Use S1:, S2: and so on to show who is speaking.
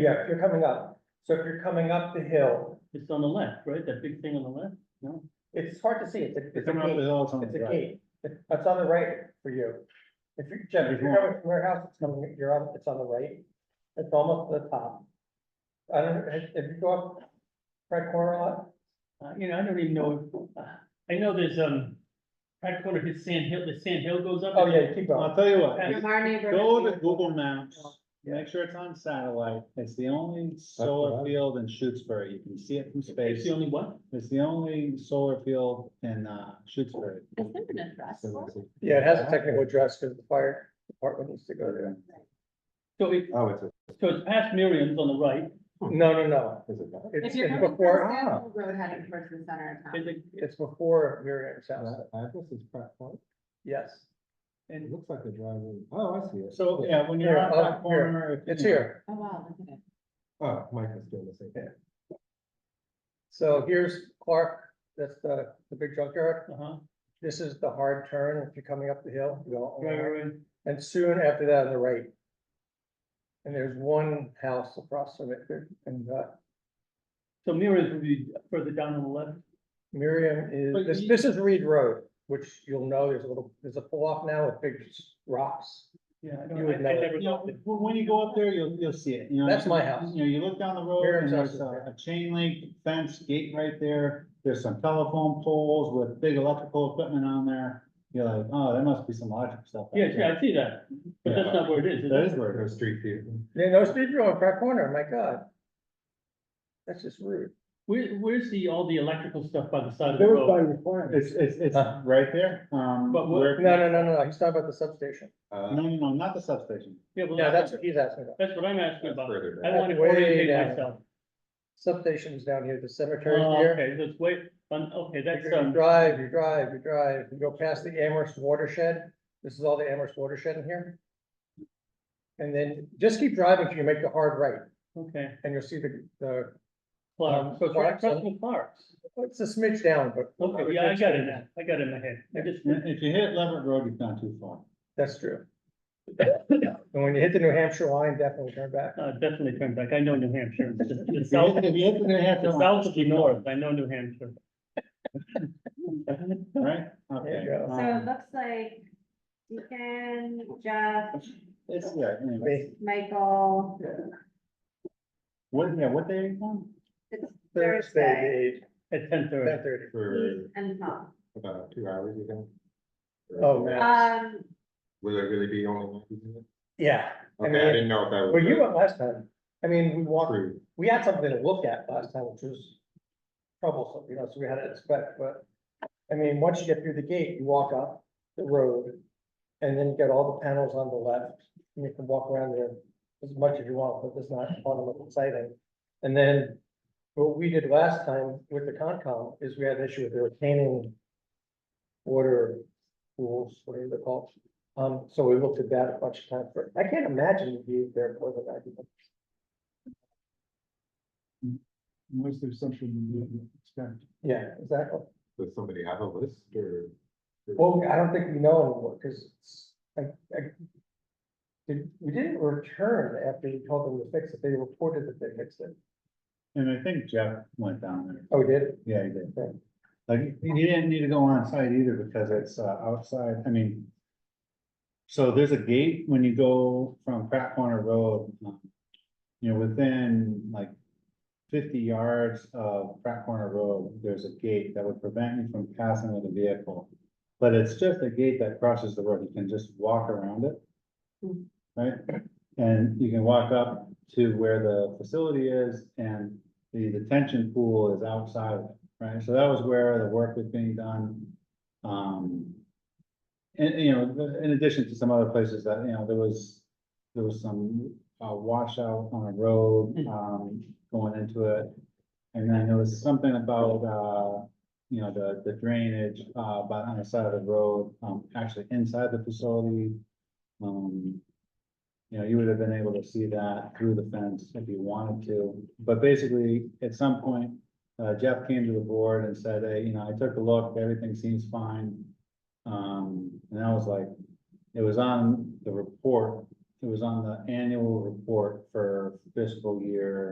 S1: Yeah, if you're coming up, so if you're coming up the hill,
S2: It's on the left, right? That big thing on the left? No?
S1: it's hard to see, it's a, it's a
S2: Coming up the
S1: gate,
S2: hill, it's on
S1: it's
S2: the
S1: a
S2: right.
S1: gate, it's on the right for you. If you're, Jim, if you're coming from your house, it's coming, you're on, it's on the right, it's almost to the top. I don't, know, if if you go up right corner a lot,
S2: Uh, you know, I don't even know, uh, I know there's, um, right corner, his sand hill, the sand hill goes up.
S1: oh yeah, keep going,
S3: I'll tell you what,
S2: That's-
S3: just
S4: From our neighborhood.
S3: go to
S4: we-
S3: Google Maps, make sure it's on satellite, it's the only solar field in Shutesbury, you can see it from
S2: It's
S3: space.
S2: the only one?
S3: It's the only solar field in, uh, Shutesbury.
S4: Is there an address for it?
S1: yeah, it has a technical address, because the fire department needs to go there.
S2: So it,
S5: Oh, it's a,
S2: so it's past Miriam's on the right,
S1: No, no, no,
S5: is it that?
S1: it's,
S4: If you're
S1: it's
S4: coming from
S1: before,
S4: Stamford Road heading towards the center of
S2: and
S4: town.
S2: the,
S1: it's before Miriam's house,
S5: That address is Pratt Point?
S1: yes,
S5: It
S2: and
S5: looks like a driveway. Oh, I see it.
S3: So, yeah, when you're on
S1: Here, oh,
S3: that corner. if you-
S1: it's here.
S4: Oh, wow, look at it.
S5: Oh, Mike is doing the same thing.
S1: So here's Clark, that's the, the big junkyard.
S2: uh-huh,
S1: This is the hard turn if you're coming up the hill. you go
S2: right,
S1: over.
S2: right, right.
S1: And soon after that on the right. And there's one house across from it there, and uh,
S2: So Miriam's would be further down on the left.
S1: Miriam
S3: But
S1: is, this,
S3: you-
S1: this is Reed Road, which you'll know there's a little, there's a pull off now with big rocks.
S2: Yeah, I
S1: You
S2: don't, I
S1: would
S2: I
S1: know it.
S2: never
S3: You know,
S2: thought
S3: when
S2: that.
S3: when you go up there, you'll, you'll see it, you know.
S1: That's my house.
S3: You know, you look down the road
S1: Miriam's
S3: and
S1: house
S3: there's
S1: is
S3: a,
S1: there.
S3: a chain link fence gate right there. There's some telephone poles with big electrical equipment on there. You're like, oh, there must be some logic stuff. out
S2: Yeah,
S3: there.
S2: yeah, I see that, but that's not where it is, is
S3: That
S2: it?
S3: is where it
S5: There's
S3: is.
S5: street view.
S1: You know, Steve, you're on Pratt Corner, my God. That's just rude.
S2: Where, where's the, all the electrical stuff by the side of the
S3: There was
S2: road?
S3: It's, it's, it's
S1: Huh.
S3: right there, um.
S2: But what-
S3: where-
S1: Uh-huh. No, no, no, no, no, he's talking about the substation.
S5: Uh,
S3: No, no, no, not the substation.
S2: Oh, Yeah, well,
S1: Yeah, that's what he's asking about.
S2: That's what I'm asking
S5: that's
S2: about.
S5: further
S2: I
S5: back.
S1: That's
S2: want to
S1: way
S2: orientate
S1: down.
S2: myself.
S1: Substation's down here, the cemetery's
S2: Oh,
S1: here.
S2: Okay, that's way, um, okay, that's,
S1: You
S2: um,
S1: drive, you drive, you drive, you go past the Amherst watershed, this is all the Amherst watershed in here. And then just keep driving till you make the hard right,
S2: okay,
S1: and you'll see the, the,
S2: Clark, so it's right
S1: Clarkson.
S2: across from Clark's.
S1: it's a smidge down, but.
S2: Okay, yeah, I got it now, I got it in my head, I just,
S3: If if you hit Leverett Road, you've gone too far.
S1: That's true. And when you hit the New Hampshire line, definitely turn back.
S2: uh, definitely turned back, I know New Hampshire, It's just- it's
S3: If you
S2: south,
S3: hit- if you hit the New Hampshire
S2: it's
S3: line,
S2: south of the north, I know New Hampshire.
S3: Right? Okay.
S1: you go.
S4: So it
S3: um,
S4: looks like Deacon, Jeff,
S3: It's, yeah, anyway.
S4: Michael,
S3: What, yeah, what day are you on?
S4: it's
S1: Thursday,
S4: Thursday,
S2: At ten
S1: the eighth, ten
S2: thirty,
S1: thirty.
S5: For
S4: Keith and Tom.
S5: about two hours ago.
S1: Oh, man,
S4: Um,
S5: Will it really be only? one evening?
S1: yeah. I
S5: Okay, I
S1: mean,
S5: didn't know if that was.
S1: well, you went last time. I mean, we walked
S5: True.
S1: we had something to look at last time, which was troublesome, you know, so we had to expect, but. I mean, once you get through the gate, you walk up the road, and then you get all the panels on the left, and you can walk around there as much as you want, but it's not fun and exciting. And then, what we did last time with the Concom is we had an issue with the retaining water pools, whatever they're called. Um, so we looked at that a bunch of times, but I can't imagine you there for the night.
S3: Unless there's something you didn't expect.
S1: Yeah, exactly.
S5: Does somebody have a list or?
S1: Well, I don't think we know anymore, because I, I. did- We didn't return after we told them to fix it, they reported that they fixed it.
S3: And I think Jeff went down there.
S1: Oh, we did?
S3: Yeah, he did.
S1: Okay.
S3: Like, he didn't need to go on site either because it's uh, outside, I mean. So there's a gate when you go from Pratt Corner Road. um, You know, within like fifty yards of Pratt Corner Road, there's a gate that would prevent you from passing with a vehicle. But it's just a gate that crosses the road. You can just walk around it.
S4: Hmm.
S3: Right? And you can walk up to where the facility is and the detention pool is outside of it, right? So that was where the work was being done. Um. And, you know, the- in addition to some other places that, you know, there was, there was some uh washout on a road, um, going into it. And then there was something about, uh, you know, the, the drainage, uh, by on the side of the road, um, actually inside the facility. Um, you know, you would have been able to see that through the fence if you wanted to, but basically, at some point, uh, Jeff came to the board and said, hey, you know, I took a look, everything seems fine. Um, and I was like, it was on the report it was on the annual report for fiscal year